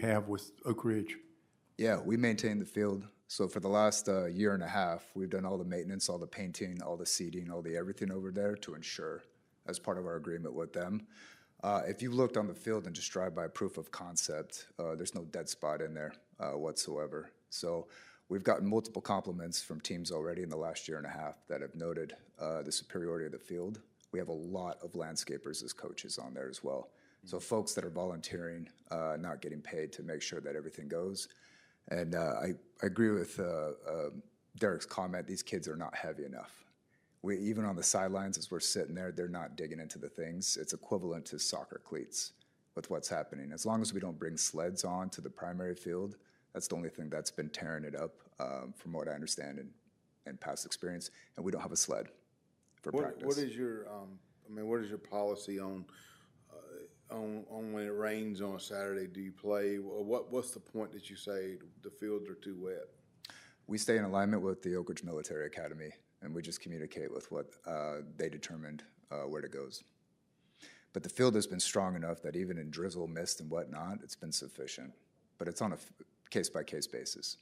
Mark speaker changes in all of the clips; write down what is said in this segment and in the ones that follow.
Speaker 1: have with Oak Ridge?
Speaker 2: Yeah, we maintain the field. So for the last uh, year and a half, we've done all the maintenance, all the painting, all the seeding, all the everything over there to ensure as part of our agreement with them. Uh, if you looked on the field and just drive by proof of concept, uh, there's no dead spot in there uh, whatsoever. So we've gotten multiple compliments from teams already in the last year and a half that have noted uh, the superiority of the field. We have a lot of landscapers as coaches on there as well. So folks that are volunteering, uh, not getting paid to make sure that everything goes. And uh, I, I agree with uh, uh, Derek's comment. These kids are not heavy enough. We even on the sidelines as we're sitting there, they're not digging into the things. It's equivalent to soccer cleats with what's happening. As long as we don't bring sleds on to the primary field, that's the only thing that's been tearing it up, um, from what I understand and, and past experience. And we don't have a sled for
Speaker 3: What,
Speaker 2: practice.
Speaker 3: what is your, um, I mean, what is your policy on, uh, on, on when it rains on a Saturday? Do you play? Wha- What, what's the point that you say the fields are too wet?
Speaker 2: we stay in alignment with the Oak Ridge Military Academy, and we just communicate with what uh, they determined uh, where it goes. But the field has been strong enough that even in drizzle, mist, and whatnot, it's been sufficient. But it's on a case by case basis.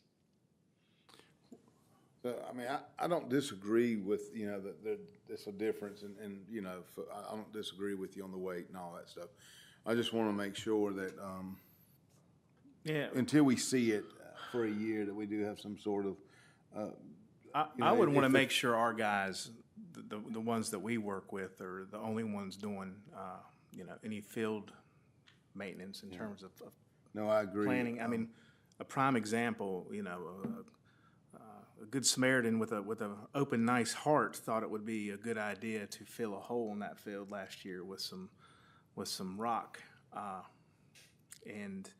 Speaker 3: So, I mean, I, I don't disagree with, you know, that there, it's a difference and, and, you know, f- I, I don't disagree with you on the weight and all that stuff. I just want to make sure that, um,
Speaker 4: Yeah,
Speaker 3: until we see it for a year, that we do have some sort of,
Speaker 4: I, I would want to make sure our guys, the, the, the ones that we work with, are the only ones doing, uh, you know, any field maintenance in terms of, of
Speaker 3: no, I agree.
Speaker 4: planning. I mean, a prime example, you know, a- a, a good Samaritan with a with a open, nice heart thought it would be a good idea to fill a hole in that field last year with some with some rock, uh, and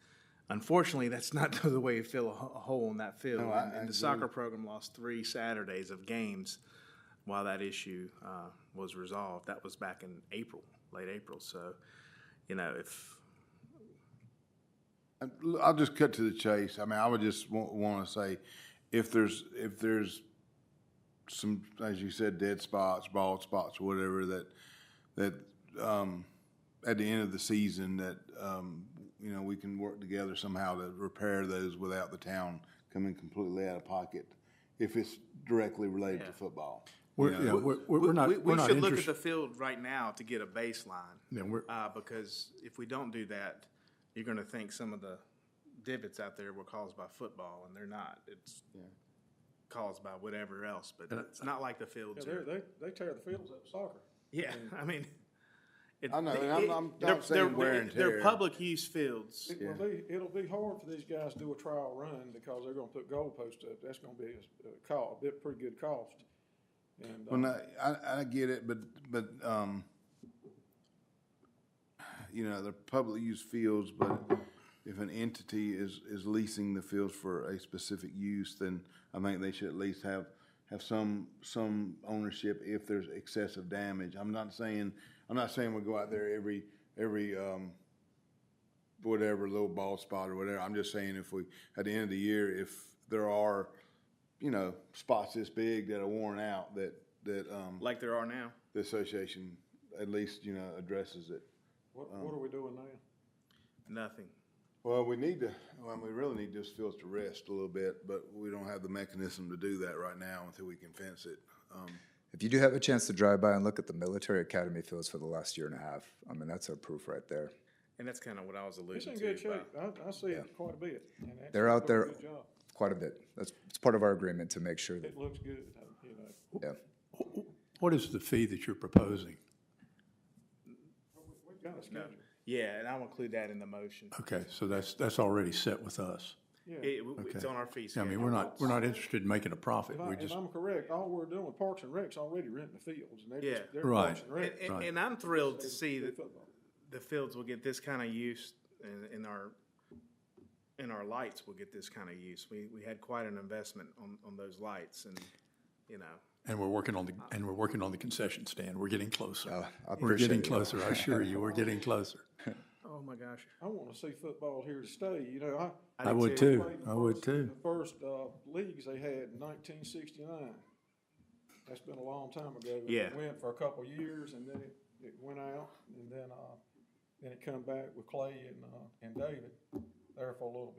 Speaker 4: unfortunately, that's not the way you fill a, ho- a hole in that field.
Speaker 3: I-
Speaker 4: and,
Speaker 3: I
Speaker 4: and the soccer program lost three Saturdays of games while that issue uh, was resolved. That was back in April, late April. So, you know, if
Speaker 3: L- I'll just cut to the chase. I mean, I would just want to say, if there's if there's some, as you said, dead spots, bald spots, whatever that that um, at the end of the season that um, you know we can work together somehow to repair those without the town coming completely out of pocket if it's directly related to football.
Speaker 1: We're, yeah, we're, we're we're not,
Speaker 4: We,
Speaker 1: we're
Speaker 4: we
Speaker 1: not
Speaker 4: should look at
Speaker 1: interested.
Speaker 4: the field right now to get a baseline,
Speaker 1: Yeah, we're-
Speaker 4: uh, because if we don't do that, you're gonna think some of the divots out there were caused by football, and they're not. It's caused by whatever else, but it's not like the fields
Speaker 5: They're-
Speaker 4: are,
Speaker 5: They, they tear the fields up soccer.
Speaker 4: yeah, I mean. it-
Speaker 3: I know,
Speaker 4: they-
Speaker 3: and I'm-
Speaker 4: it-
Speaker 3: I'm not
Speaker 4: they're-
Speaker 3: saying
Speaker 4: they're-
Speaker 3: wear and
Speaker 4: They're
Speaker 3: tear.
Speaker 4: public use fields.
Speaker 5: It will be, it'll be hard for these guys to do a trial run because they're gonna put goalposts up. That's gonna be a, a call, a bit, pretty good cost. And, uh,
Speaker 3: Well, no, I, I get it, but, but, um, you know, they're public use fields, but if an entity is, is leasing the fields for a specific use, then I think they should at least have, have some, some ownership if there's excessive damage. I'm not saying, I'm not saying we go out there every, every, um, whatever little bald spot or whatever. I'm just saying if we, at the end of the year, if there are, you know, spots this big that are worn out, that, that, um,
Speaker 4: Like there are now.
Speaker 3: the association at least, you know, addresses it.
Speaker 5: what, what are we doing now?
Speaker 4: Nothing.
Speaker 3: Well, we need to, well, we really need this field to rest a little bit, but we don't have the mechanism to do that right now until we can fence it. Um,
Speaker 2: If you do have a chance to drive by and look at the military academy fields for the last year and a half, I mean, that's our proof right there.
Speaker 4: And that's kind of what I was
Speaker 5: It's in
Speaker 4: alluding
Speaker 5: good
Speaker 4: to.
Speaker 5: shape.
Speaker 4: about-
Speaker 5: I, I see it quite a bit. and that's-
Speaker 2: They're out
Speaker 5: they're doing
Speaker 2: there-
Speaker 5: a Good job.
Speaker 2: Quite a bit. That's it's part of our agreement to make sure that,
Speaker 5: It looks good, I- you know.
Speaker 2: yeah.
Speaker 1: What is the fee that you're proposing?
Speaker 5: We've got a schedule.
Speaker 4: Yeah, and I'll include that in the motion.
Speaker 1: Okay, so that's, that's already set with us.
Speaker 4: It- it's on our fee
Speaker 1: I
Speaker 4: schedule.
Speaker 1: mean, we're not, we're not interested in making a profit.
Speaker 5: If I-
Speaker 1: We're
Speaker 5: If
Speaker 1: just,
Speaker 5: I'm correct, all we're doing with Parks and Rec's already renting the fields and they're
Speaker 4: Yeah.
Speaker 5: just, they're
Speaker 1: Right.
Speaker 5: Parks and Rec.
Speaker 4: And, and, and I'm thrilled to see that
Speaker 5: Football.
Speaker 4: the fields will get this kind of use, and, and our and our lights will get this kind of use. We we had quite an investment on on those lights, and you know,
Speaker 1: and we're working on the, and we're working on the concession stand. We're getting closer.
Speaker 2: uh, I
Speaker 1: We're getting
Speaker 2: appreciate it.
Speaker 1: closer, I assure you, we're getting closer.
Speaker 4: oh my gosh,
Speaker 5: I wanna see football here to stay, you know, I,
Speaker 1: I would too, I would too.
Speaker 5: The first uh, leagues they had in 1969. That's been a long time ago.
Speaker 4: Yeah.
Speaker 5: It went for a couple of years and then it, it went out and then uh, then it come back with Clay and uh, and David. there for a little bit.